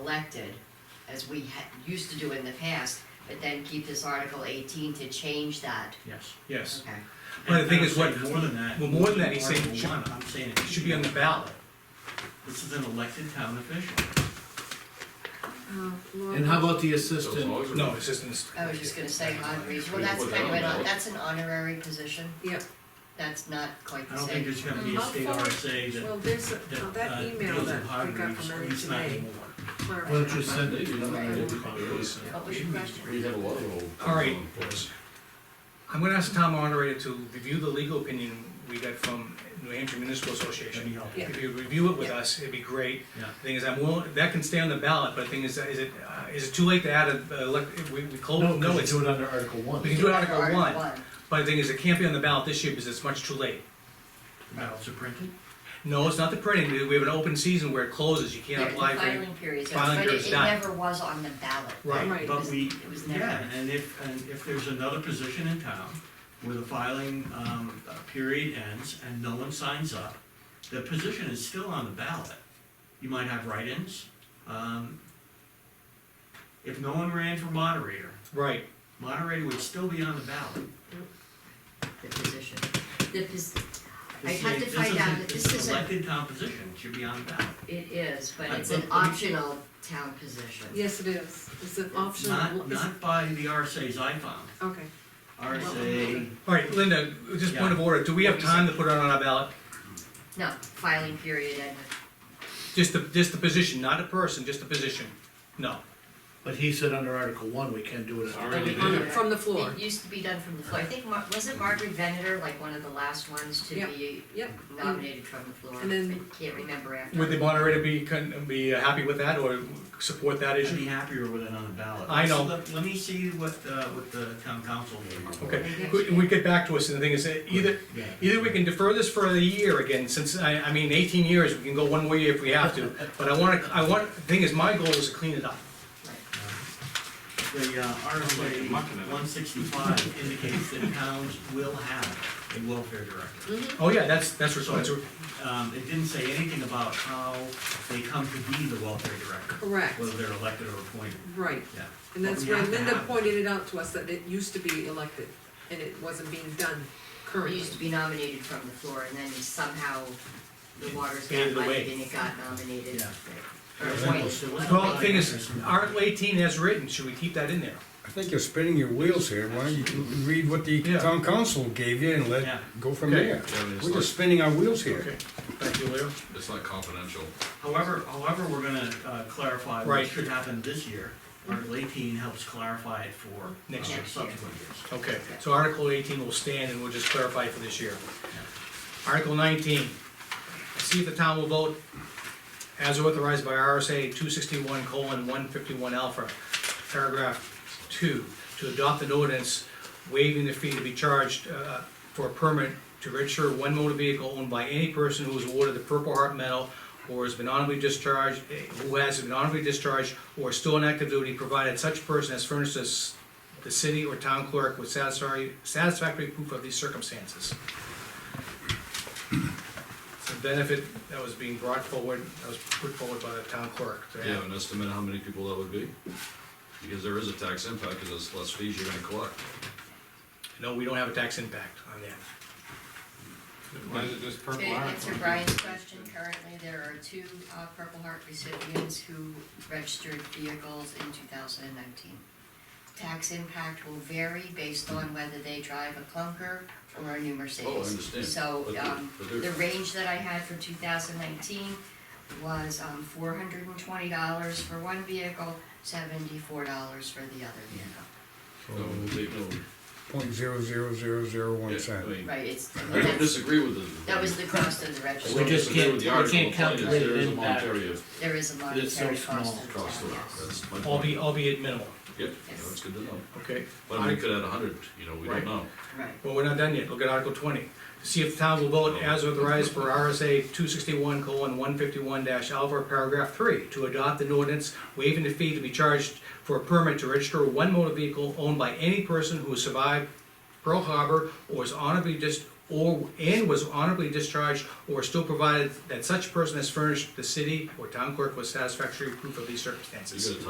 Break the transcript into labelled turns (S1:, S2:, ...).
S1: elected, as we ha- used to do in the past, but then keep this Article eighteen to change that,
S2: yes.
S3: yes.
S1: okay?
S2: But the thing
S3: I'm
S2: is what-
S3: saying More than that.
S2: Well, more than that, he's saying
S3: Article
S2: should-
S3: one, I'm saying it
S2: It should be on the ballot.
S3: This is an elected town official.
S4: Uh,
S5: And how about the
S6: Those
S5: assistant?
S6: laws are-
S2: No, it's just in this.
S1: I was Oh, just gonna say, honorees, well, that's
S6: Well,
S1: kind of,
S6: that-
S1: an- that's an honorary position,
S4: Yep,
S1: that's not quite
S3: I
S1: the
S3: don't think
S1: same.
S3: there's gonna be a
S4: How
S3: state
S4: far-
S3: RSA that,
S4: well, there's, a-
S3: that,
S4: that
S3: uh,
S4: email
S3: deals
S4: that
S3: with
S4: we got
S3: honorees,
S4: from
S3: at
S4: Mary
S3: least not
S4: today.
S3: anymore.
S4: Clara.
S5: Why don't you send
S6: They
S5: it?
S6: do.
S3: uh,
S1: What was your question?
S6: We have a lot of old.
S2: All right.
S6: boys.
S2: I'm gonna ask the town moderator to review the legal opinion we got from New Hampshire Municipal
S3: That'd be
S2: Association.
S3: helpful.
S4: Yeah.
S2: If you review it with us, it'd be great.
S3: Yeah.
S2: Thing is, I'm willing, that can stay on the ballot, but the thing is, is it, uh, is it too late to add a, uh, elec- we, we close?
S5: No, because
S2: it's
S5: you do it under Article One.
S2: We can do it Article one, but the thing is, it can't be on the ballot this year because it's much too late.
S3: Ballots are printed?
S2: No, it's not the printing, we have an open season where it closes, you
S1: Yeah,
S2: can't
S1: the
S2: apply for it.
S1: Filing period,
S2: filing
S1: but
S2: period's
S1: it- it
S2: done.
S1: never was on the ballot.
S2: Right,
S4: Right.
S3: But
S1: was-
S3: we,
S1: it was never-
S3: yeah, and if, and if there's another position in town where the filing, um, uh, period ends and no one signs up, the position is still on the ballot. You might have write-ins. Um, If no one ran for moderator,
S2: right.
S3: moderator would still be on the ballot.
S1: The position, the pos, I
S3: This
S1: had
S3: is-
S1: to
S3: this
S1: find out
S3: isn't-
S1: that
S3: is
S1: this
S3: an
S1: isn't,
S3: Elected town position, it should be on the ballot.
S1: it is, but
S3: I-
S1: it's an
S3: but- but-
S1: optional town position.
S4: Yes, it is, it's an optional,
S3: Not,
S4: is it-
S3: not by the RSA's I found.
S4: okay.
S3: RSA,
S2: All right, Linda, just point of order, do we have time to put it on our ballot?
S1: No, filing period ended.
S2: Just the, just the position, not a person, just the position? No.
S5: But he said under Article One, we can do it.
S6: All right. Already
S4: On the-
S6: did.
S4: From the floor,
S1: It used to be done from the floor. I think, Mar- wasn't Margaret Venator like one of the last ones to
S4: Yep,
S1: be
S4: yep.
S1: nominated from the floor?
S4: And then-
S1: I Can't remember after.
S2: Would the moderator be, con- be uh, happy with that or support that
S3: I'd
S2: issue?
S3: be happier with it on the ballot.
S2: I know.
S3: Let- Let me see what, uh, what the town council gave.
S2: Okay, we, we get back to us, and the thing is, uh, either,
S3: Yeah.
S2: either we can defer this for a year again, since, I, I mean, eighteen years, we can go one way if we have to, but I wanna, I want, the thing is, my goal is to clean it up.
S3: The uh, RSA
S6: Mucking it.
S3: one sixty-five indicates that towns will have a welfare director.
S2: Oh, yeah, that's, that's responsible,
S1: Hmm?
S3: Um, it didn't say anything about how they come to be the welfare director,
S4: correct,
S3: whether they're elected or appointed,
S4: right.
S3: yeah.
S4: And that's
S3: But we
S4: where
S3: have to
S4: Linda
S3: have-
S4: pointed it out to us, that it used to be elected, and it wasn't being done
S1: It
S4: currently.
S1: used to be nominated from the floor and then somehow the waters got
S2: Faded
S1: muddied
S2: away.
S1: and it got nominated.
S3: Yeah.
S1: Or appointed.
S3: There was no
S2: well, the thing is,
S3: interest in that.
S2: Article eighteen as written, should we keep that in there?
S7: I think you're spinning your wheels here, why don't you read what the
S2: Yeah.
S7: town council gave you and
S3: Yeah.
S7: let, go from
S2: Okay.
S7: there.
S6: Yeah, I mean, it's
S7: We're
S6: like-
S7: just spinning our wheels here.
S2: Okay, thank you, Leo.
S6: It's not confidential.
S3: However, however, we're gonna uh, clarify what
S2: Right.
S3: should happen this year. Article eighteen helps clarify it for
S2: Next
S3: uh,
S2: year.
S3: subsequent years.
S2: Okay, so Article eighteen will stand and we'll just clarify for this year. Article nineteen, see if the town will vote as authorized by RSA two sixty-one colon one fifty-one alpha, paragraph two, to adopt an ordinance waiving the fee to be charged, uh, for a permit to register one motor vehicle owned by any person who was awarded the Purple Heart Medal or has been honorably discharged, eh, who has been honorably discharged or is still on active duty, provided such person has furnished us the city or town clerk with satisfactory, satisfactory proof of these circumstances. It's a benefit that was being brought forward, that was put forward by the town clerk. to
S6: Do
S2: have.
S6: you have an estimate how many people that would be? Because there is a tax impact, because there's less fees you're gonna collect.
S2: No, we don't have a tax impact on that.
S8: Why is it just
S1: To
S8: purple heart?
S1: answer Brian's question, currently there are two uh, Purple Heart recipients who registered vehicles in two thousand and nineteen. Tax impact will vary based on whether they drive a clunker or a new Mercedes.
S6: Oh, I understand.
S1: So,
S6: But they're-
S1: um,
S6: but they're-
S1: the range that I had for two thousand nineteen was, um, four hundred and twenty dollars for one vehicle, seventy-four dollars for the other vehicle.
S6: No, they don't.
S7: Point zero zero zero zero
S6: Yeah,
S7: one
S6: I
S7: cent.
S6: mean,
S1: Right, it's, I mean,
S6: I don't
S1: that's-
S6: disagree with it.
S1: that was the cost of the
S6: I
S1: registration.
S6: don't
S8: We just
S6: disagree
S8: can't-
S6: with the
S8: we
S6: article.
S8: can't
S6: The point is
S8: calculate
S6: there
S8: it
S6: is a
S8: in that.
S6: monetary
S1: There is a
S8: It's so
S1: monetary cost
S8: small
S1: to the
S6: Cost
S1: town,
S6: of it,
S1: yes.
S6: that's my
S2: Albeit,
S6: point.
S2: albeit minimal,
S6: Yep,
S1: Yes.
S6: that's good to know.
S2: okay?
S6: But I mean, we could add a hundred, you know, we
S2: Right.
S6: don't know.
S1: Right.
S2: Well, we're not done yet, look at Article twenty. To see if the town will vote as authorized for RSA two sixty-one colon one fifty-one dash alpha, paragraph three, to adopt an ordinance waiving the fee to be charged for a permit to register one motor vehicle owned by any person who has survived Pearl Harbor or is honorably dis- or, and was honorably discharged, or still provided that such person has furnished the city or town clerk with satisfactory proof of these
S6: You
S2: circumstances.
S6: got a